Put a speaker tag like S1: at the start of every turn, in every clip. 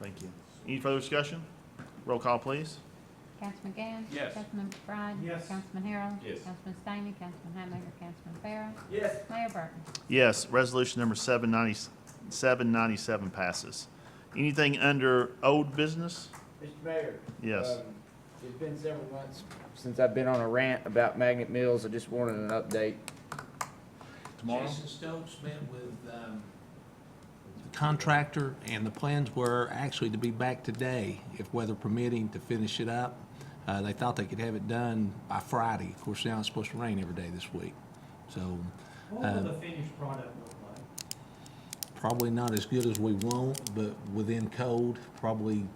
S1: Thank you. Any further discussion? Roll call, please.
S2: Councilman Gann?
S3: Yes.
S2: Councilman McBride?
S3: Yes.
S2: Councilman Harrell?
S3: Yes.
S2: Councilman Stamey? Councilman Highmaker? Councilman Farrell?
S3: Yes.
S2: Mayor Burton?
S1: Yes, resolution number seven ninety, seven ninety-seven passes. Anything under old business?
S4: Mr. Mayor.
S1: Yes.
S4: um, It's been several months since I've been on a rant about Magnet Mills. I just wanted an update.
S5: Jason Stokes met with um, the contractor, and the plans were actually to be back today, if weather permitting, to finish it up. Uh, They thought they could have it done by Friday. Of course, now it's supposed to rain every day this week. So
S6: What will
S5: Um,
S6: the finished product look like?
S5: probably not as good as we want, but within code, probably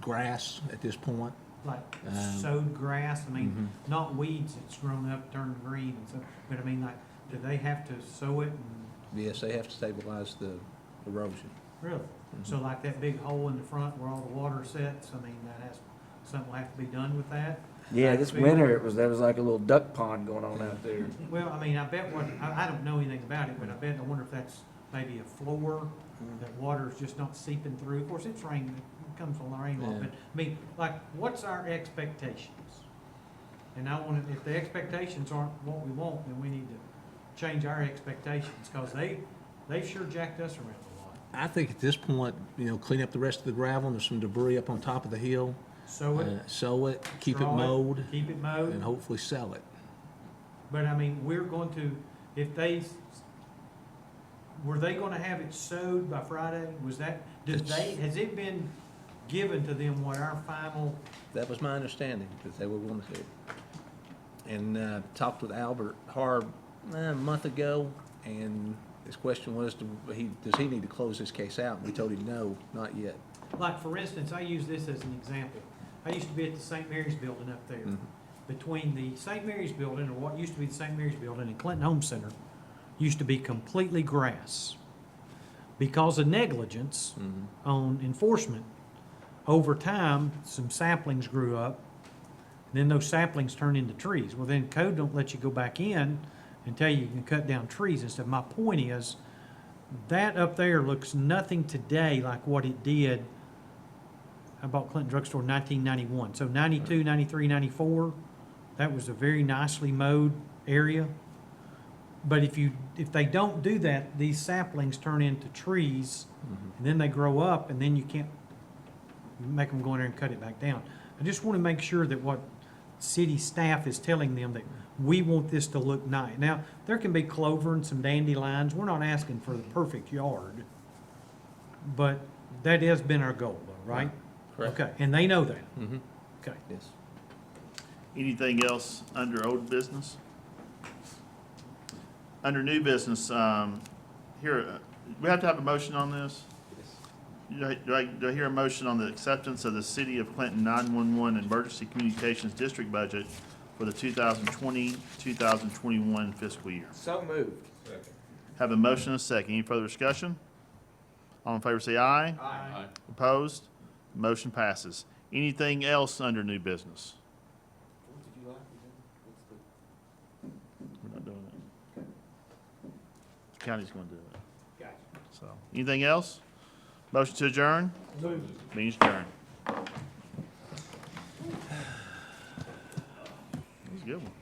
S5: grass at this point.
S6: Like
S5: Um,
S6: sowed grass, I mean, not weeds that's grown up, turned green and stuff, but I mean, like, do they have to sow it and,
S5: Yes, they have to stabilize the erosion.
S6: really? So like that big hole in the front where all the water sets, I mean, that has, something will have to be done with that?
S4: Yeah, this winter, it was, there was like a little duck pond going on out there.
S6: Well, I mean, I bet what, I, I don't know anything about it, but I bet, I wonder if that's maybe a floor,
S5: Mm-hmm.
S6: that water's just not seeping through. Of course, it's rain, it comes from the rain a lot,
S5: Yeah.
S6: but, I mean, like, what's our expectations? And I want, if the expectations aren't what we want, then we need to change our expectations, cause they, they sure jacked us around a lot.
S5: I think at this point, you know, clean up the rest of the gravel, and there's some debris up on top of the hill.
S6: Sow it,
S5: Uh, Sow it, keep it
S6: Straw it.
S5: mowed,
S6: keep it mowed.
S5: and hopefully sell it.
S6: But I mean, we're going to, if they, s- were they gonna have it sowed by Friday? Was that, did
S5: It's-
S6: they, has it been given to them what our final,
S5: That was my understanding, that they would want to do it. And uh, talked with Albert Harb eh, a month ago, and his question was, do he- does he need to close this case out? And we told him, no, not yet.
S6: like, for instance, I use this as an example. I used to be at the St. Mary's Building up there.
S5: Mhm.
S6: Between the St. Mary's Building, or what used to be the St. Mary's Building, and Clinton Home Center, used to be completely grass. Because of negligence,
S5: Mhm.
S6: on enforcement. Over time, some saplings grew up, then those saplings turn into trees. Well, then code don't let you go back in and tell you you can cut down trees and stuff. My point is, that up there looks nothing today like what it did. I bought Clinton Drug Store in nineteen ninety-one, so 92, 93, 94. that was a very nicely mowed area. But if you, if they don't do that, these saplings turn into trees. And then they grow up, and then you can't make them go in there and cut it back down. I just want to make sure that what city staff is telling them that we want this to look nice. Now, there can be clover and some dandelions. We're not asking for the perfect yard. But that has been our goal, though, right? Okay, and they know that.
S5: Mhm.
S6: Okay.
S5: Yes.
S1: Anything else under old business? Under new business, um, here, uh, we have to have a motion on this? Do I, do I- do I hear a motion on the acceptance of the City of Clinton nine-one-one Emergency Communications District budget for the 2020-2021 fiscal year?
S4: So moved.
S1: Have a motion and a second. Any further discussion? All in favor say aye.
S3: Aye.
S1: Opposed? Motion passes. Anything else under new business? We're not doing it. County's gonna do it. So, anything else? Motion to adjourn? Means adjourn. That was a good one.